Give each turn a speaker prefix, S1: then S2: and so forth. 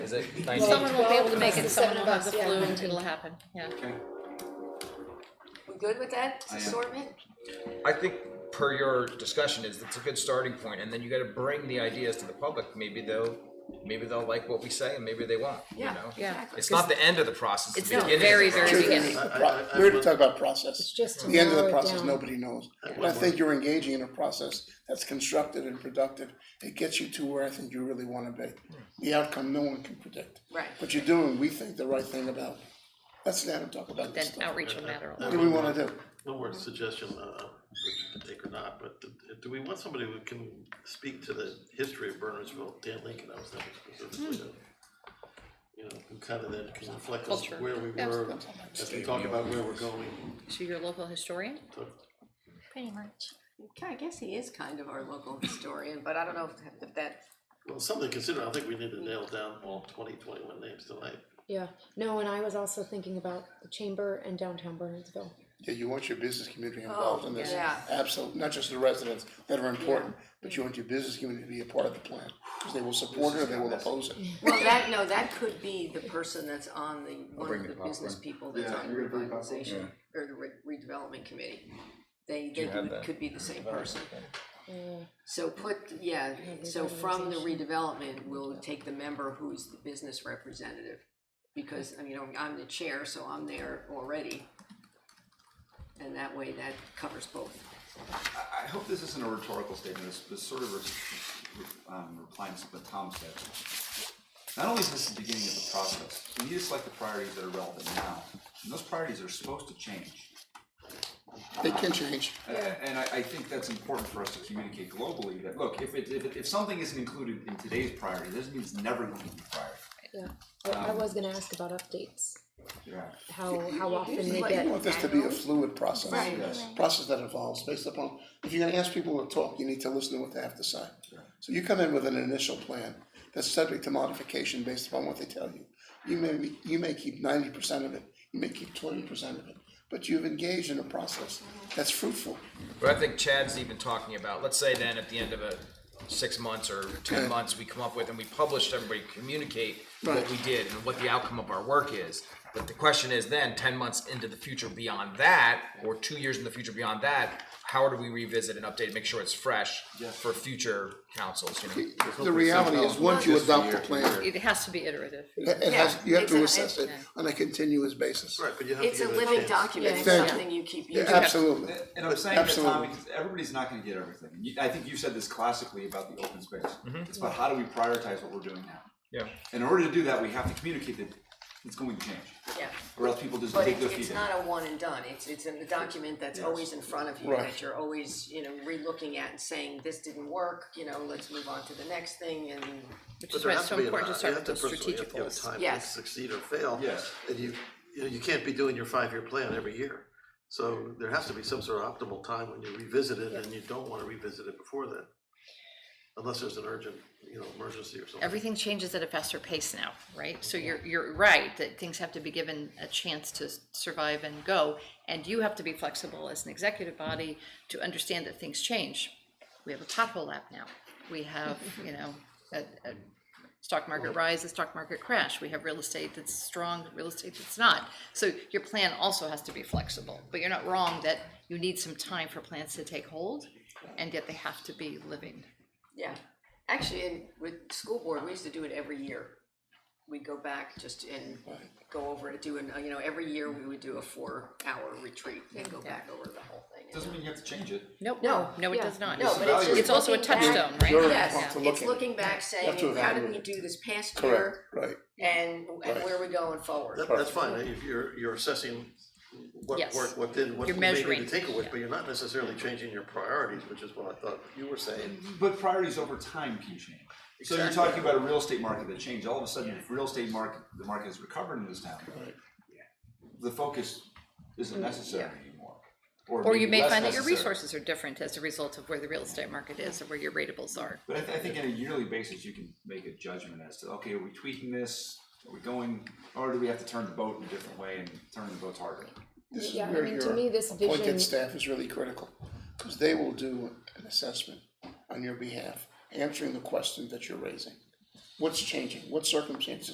S1: is it
S2: Someone
S1: nineteen?
S2: will be able to
S3: Well,
S2: make
S3: it's
S2: it,
S3: the
S2: someone
S3: seven
S2: will have
S3: of
S2: the
S3: us, yeah.
S2: flu and it'll happen, yeah.
S4: Okay.
S3: We good with that
S4: I am.
S3: assortment?
S1: I think per your discussion is, it's a good starting point, and then you gotta bring the ideas to the public, maybe they'll, maybe they'll like what we say and maybe they won't, you
S3: Yeah,
S1: know?
S2: Yeah.
S1: It's not the end of the process, it's
S2: It's
S1: the
S2: the
S1: beginning of the
S2: very,
S1: process.
S2: very beginning.
S5: I- I-
S6: Pro-
S5: I-
S6: We're
S5: I-
S6: to talk about process.
S3: just to
S6: The end of
S3: narrow
S6: the
S3: it
S6: process,
S3: down.
S6: nobody knows. And I think you're engaging in a process that's constructive and productive. It gets you to where I think you really wanna be. The outcome, no one can predict.
S3: Right.
S6: But you're doing, we think, the right thing about, let's stand and talk
S2: Then
S6: about this stuff.
S2: outreach will matter a
S6: What
S2: lot.
S6: do we wanna do?
S5: One
S3: Mm-hmm.
S5: more suggestion, uh, which you can take or not, but do- do we want somebody who can speak to the history of Burnersville, Dan Lincoln, I was thinking specifically
S3: Hmm.
S5: of. You know, who kind of then can reflect on
S2: Culture.
S5: where we
S2: Yeah.
S5: were, as we talk about where we're going,
S2: So you're a local historian?
S5: talk
S7: Pretty much.
S3: Yeah, I guess he is kind of our local historian, but I don't know if- if that.
S5: Well, something to consider, I think we need
S3: Hmm.
S5: to nail down all twenty twenty-one names tonight.
S8: Yeah, no, and I was also thinking about the chamber and downtown Burnsville.
S6: Yeah, you want your business community involved in this.
S3: Oh, yeah.
S6: Absolutely, not just the residents that are important, but you want your business community to be a part of the plan. Because they will support it or they will oppose it.
S3: Well, that, no, that could be the person that's on the, one
S1: bring
S3: of
S1: the
S3: the business
S1: popcorn.
S3: people that's
S4: Yeah,
S3: on the
S4: you're gonna bring popcorn?
S3: revitalization or the re- redevelopment committee. They,
S1: you
S3: they
S1: have
S3: would-
S1: that?
S3: could be the same person.
S8: Yeah.
S3: So put, yeah, so from the redevelopment, we'll take the member who's the business representative. Because, I mean, I'm the chair, so I'm there already. And that way that covers both.
S4: I, I hope this isn't a rhetorical statement, it's, it's sort of re- re- um, replying to something Tom said. Not only is this the beginning of the process, we need to select the priorities that are relevant now, and those priorities are supposed to change.
S6: They can change.
S4: A- And I, I think that's important for us to communicate globally, that, look, if it, if, it- if something isn't included in today's priority, doesn't mean it's never going to be priority.
S8: Yeah, I,
S6: Um,
S8: I was gonna ask about updates,
S4: Yeah.
S8: how, how often they
S6: You
S8: get,
S6: want this to be a fluid process.
S3: Right.
S4: Yes.
S6: process that evolves based upon, if you're gonna ask people to talk, you need to listen to what they have to say. So you come in with an initial plan that's subject to modification based upon what they tell you. You may, be- you may keep ninety percent of it, you may keep twenty percent of it, but you've engaged in a process that's fruitful.
S1: But I think Chad's even talking about, let's say then at the end of a six months or ten
S6: Yeah.
S1: months, we come up with and we publish, everybody communicate what
S6: Right.
S1: we did and what the outcome of our work is. But the question is then, ten months into the future beyond that, or two years in the future beyond that, how do we revisit and update, make sure it's fresh for future councils, you know?
S6: The reality is, once you adopt the plan,
S2: It has to be iterative.
S6: it it has, you have to
S3: Yeah, it's an-
S6: assess it on a continuous basis.
S5: Right, but you have to
S3: It's a
S5: give it
S3: living
S5: chance.
S3: document, it's
S6: Thank you.
S3: something you keep
S6: Yeah,
S3: using.
S6: Absolutely.
S4: And- And I'm saying that, Tom,
S6: Absolutely.
S4: because everybody's not gonna get everything. You- I think you said this classically about the open space. It's about how do we prioritize what we're doing now?
S1: Yeah.
S4: In order to do that, we have to communicate that it's going to change,
S3: Yeah.
S4: or else people just
S3: But
S4: take
S3: it-
S4: their
S3: it's
S4: feet in.
S3: not a one and done, it's, it's in the document that's
S4: Yes.
S3: always in front of you,
S6: Right.
S3: that you're always, you know, relooking at and saying, this didn't work, you know, let's move on to the next thing and.
S2: Which
S5: But
S2: is
S5: there
S2: why
S5: has
S2: it's
S5: to
S2: so
S5: be an,
S2: important
S5: you
S2: to start
S5: have
S2: with
S5: to
S2: those
S5: personally
S2: strategic
S5: have to have a
S2: goals.
S5: time to
S3: Yes.
S5: succeed or fail.
S4: Yes.
S5: And you, you know, you can't be doing your five-year plan every year. So there has to be some sort of optimal time when you revisit it and you don't wanna revisit it before then. Unless there's an urgent, you know, emergency or something.
S2: Everything changes at a faster pace now, right? So you're, you're right, that things have to be given a chance to s- survive and go. And you have to be flexible as an executive body to understand that things change. We have a pothole app now. We have, you know, a, a stock market rise, a stock market crash. We have real estate that's strong, real estate that's not. So your plan also has to be flexible. But you're not wrong that you need some time for plans to take hold, and yet they have to be living.
S3: Yeah, actually, in, with school board, we used to do it every year. We'd go back just and go over it, do, an- you know, every year we would do a four-hour retreat and go back over the whole thing.
S4: Doesn't mean you have to change it.
S2: Nope.
S3: No,
S2: No, it
S3: yeah.
S2: does not.
S3: No, but it's just
S2: It's also a
S3: looking back-
S2: touchstone, right?
S6: Sure.
S2: Yeah.
S6: Want
S3: Yes,
S6: to look
S3: it's
S6: at it.
S3: looking back, saying,
S6: have to
S3: how did we
S6: evaluate
S3: do this past
S6: Correct,
S3: year?
S6: right.
S3: And, and
S6: Right.
S3: where are we going forward?
S5: That, that's fine, if you're, you're assessing what
S2: Yes.
S5: worked, what didn't, what
S2: You're
S5: you may need to
S2: measuring,
S5: take away,
S2: yeah.
S5: but you're not necessarily changing your priorities, which is what I thought you were
S2: Mm-hmm.
S5: saying.
S4: But priorities over time can change. So you're talking about a real estate market that changed, all of a sudden, if real estate market, the market is recovered in this town. The focus isn't necessary anymore.
S2: Or you
S4: maybe
S2: may
S4: less
S2: find that your
S4: necessary.
S2: resources are different as a result of where the real estate market is or where your rateables are.
S4: But I, th- I think on a yearly basis, you can make a judgment as to, okay, are we tweaking this? Are we going, or do we have to turn the boat in a different way and turn the boats harder?
S6: This is
S8: Yeah, I
S6: where
S8: mean, to
S6: your
S8: me, this vision-
S6: appointed staff is really critical, because they will do an assessment on your behalf, answering the question that you're raising. What's changing? What circumstances